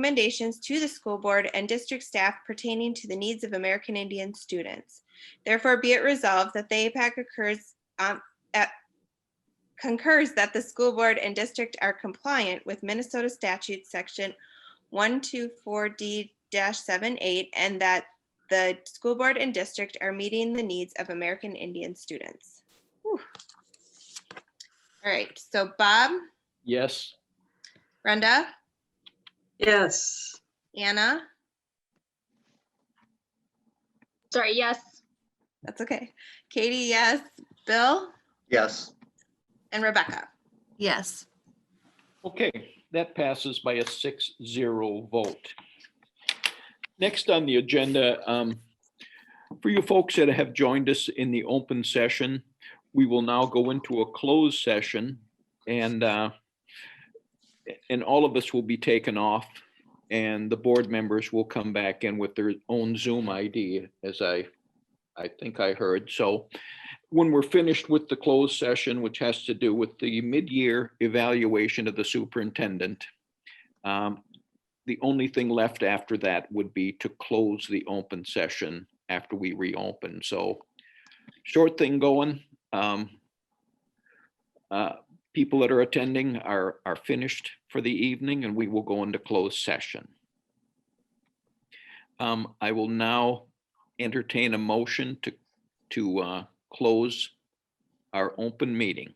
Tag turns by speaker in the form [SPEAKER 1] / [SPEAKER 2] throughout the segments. [SPEAKER 1] recommendations to the school board and district staff pertaining to the needs of American Indian students. Therefore, be it resolved that the APAC occurs, um, at- concurs that the school board and district are compliant with Minnesota statute section one, two, four, D dash seven, eight, and that the school board and district are meeting the needs of American Indian students. Whew. All right, so Bob,
[SPEAKER 2] Yes.
[SPEAKER 1] Brenda,
[SPEAKER 3] Yes.
[SPEAKER 1] Anna,
[SPEAKER 4] Sorry, yes.
[SPEAKER 1] that's okay. Katie, yes, Bill,
[SPEAKER 5] Yes.
[SPEAKER 1] and Rebecca.
[SPEAKER 6] yes.
[SPEAKER 2] Okay, that passes by a six zero vote. Next on the agenda, um, for you folks that have joined us in the open session, we will now go into a closed session and, uh, and all of us will be taken off and the board members will come back in with their own Zoom ID as I, I think I heard. So when we're finished with the closed session, which has to do with the mid-year evaluation of the superintendent, um, the only thing left after that would be to close the open session after we reopen. So short thing going. um, uh, People that are attending are, are finished for the evening and we will go into closed session. Um, I will now entertain a motion to, to uh, close our open meeting.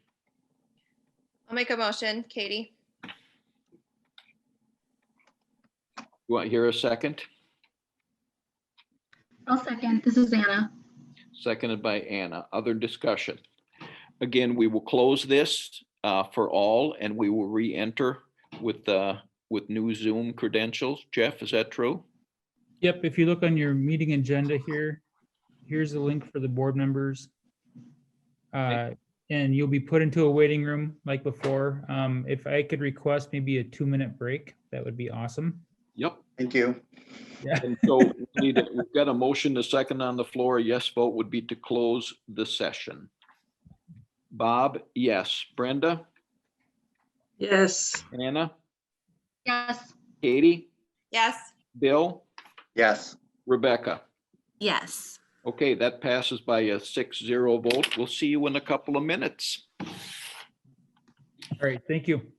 [SPEAKER 1] I'll make a motion, Katie.
[SPEAKER 2] Do I hear a second?
[SPEAKER 4] I'll second. This is Anna.
[SPEAKER 2] Seconded by Anna. Other discussion. Again, we will close this uh, for all and we will re-enter with, uh, with new Zoom credentials. Jeff, is that true?
[SPEAKER 7] Yep, if you look on your meeting agenda here, here's the link for the board members. Uh, And you'll be put into a waiting room like before. Um, If I could request maybe a two-minute break, that would be awesome.
[SPEAKER 2] Yep.
[SPEAKER 5] Thank you.
[SPEAKER 2] And so we need a- we've got a motion, a second on the floor. A Yes vote would be to close the session. Bob, yes. Brenda,
[SPEAKER 3] Yes.
[SPEAKER 2] Anna,
[SPEAKER 4] Yes.
[SPEAKER 2] Katie,
[SPEAKER 1] Yes.
[SPEAKER 2] Bill,
[SPEAKER 5] Yes.
[SPEAKER 2] Rebecca.
[SPEAKER 6] Yes.
[SPEAKER 2] Okay, that passes by a six zero vote. We'll see you in a couple of minutes.
[SPEAKER 7] All right, thank you.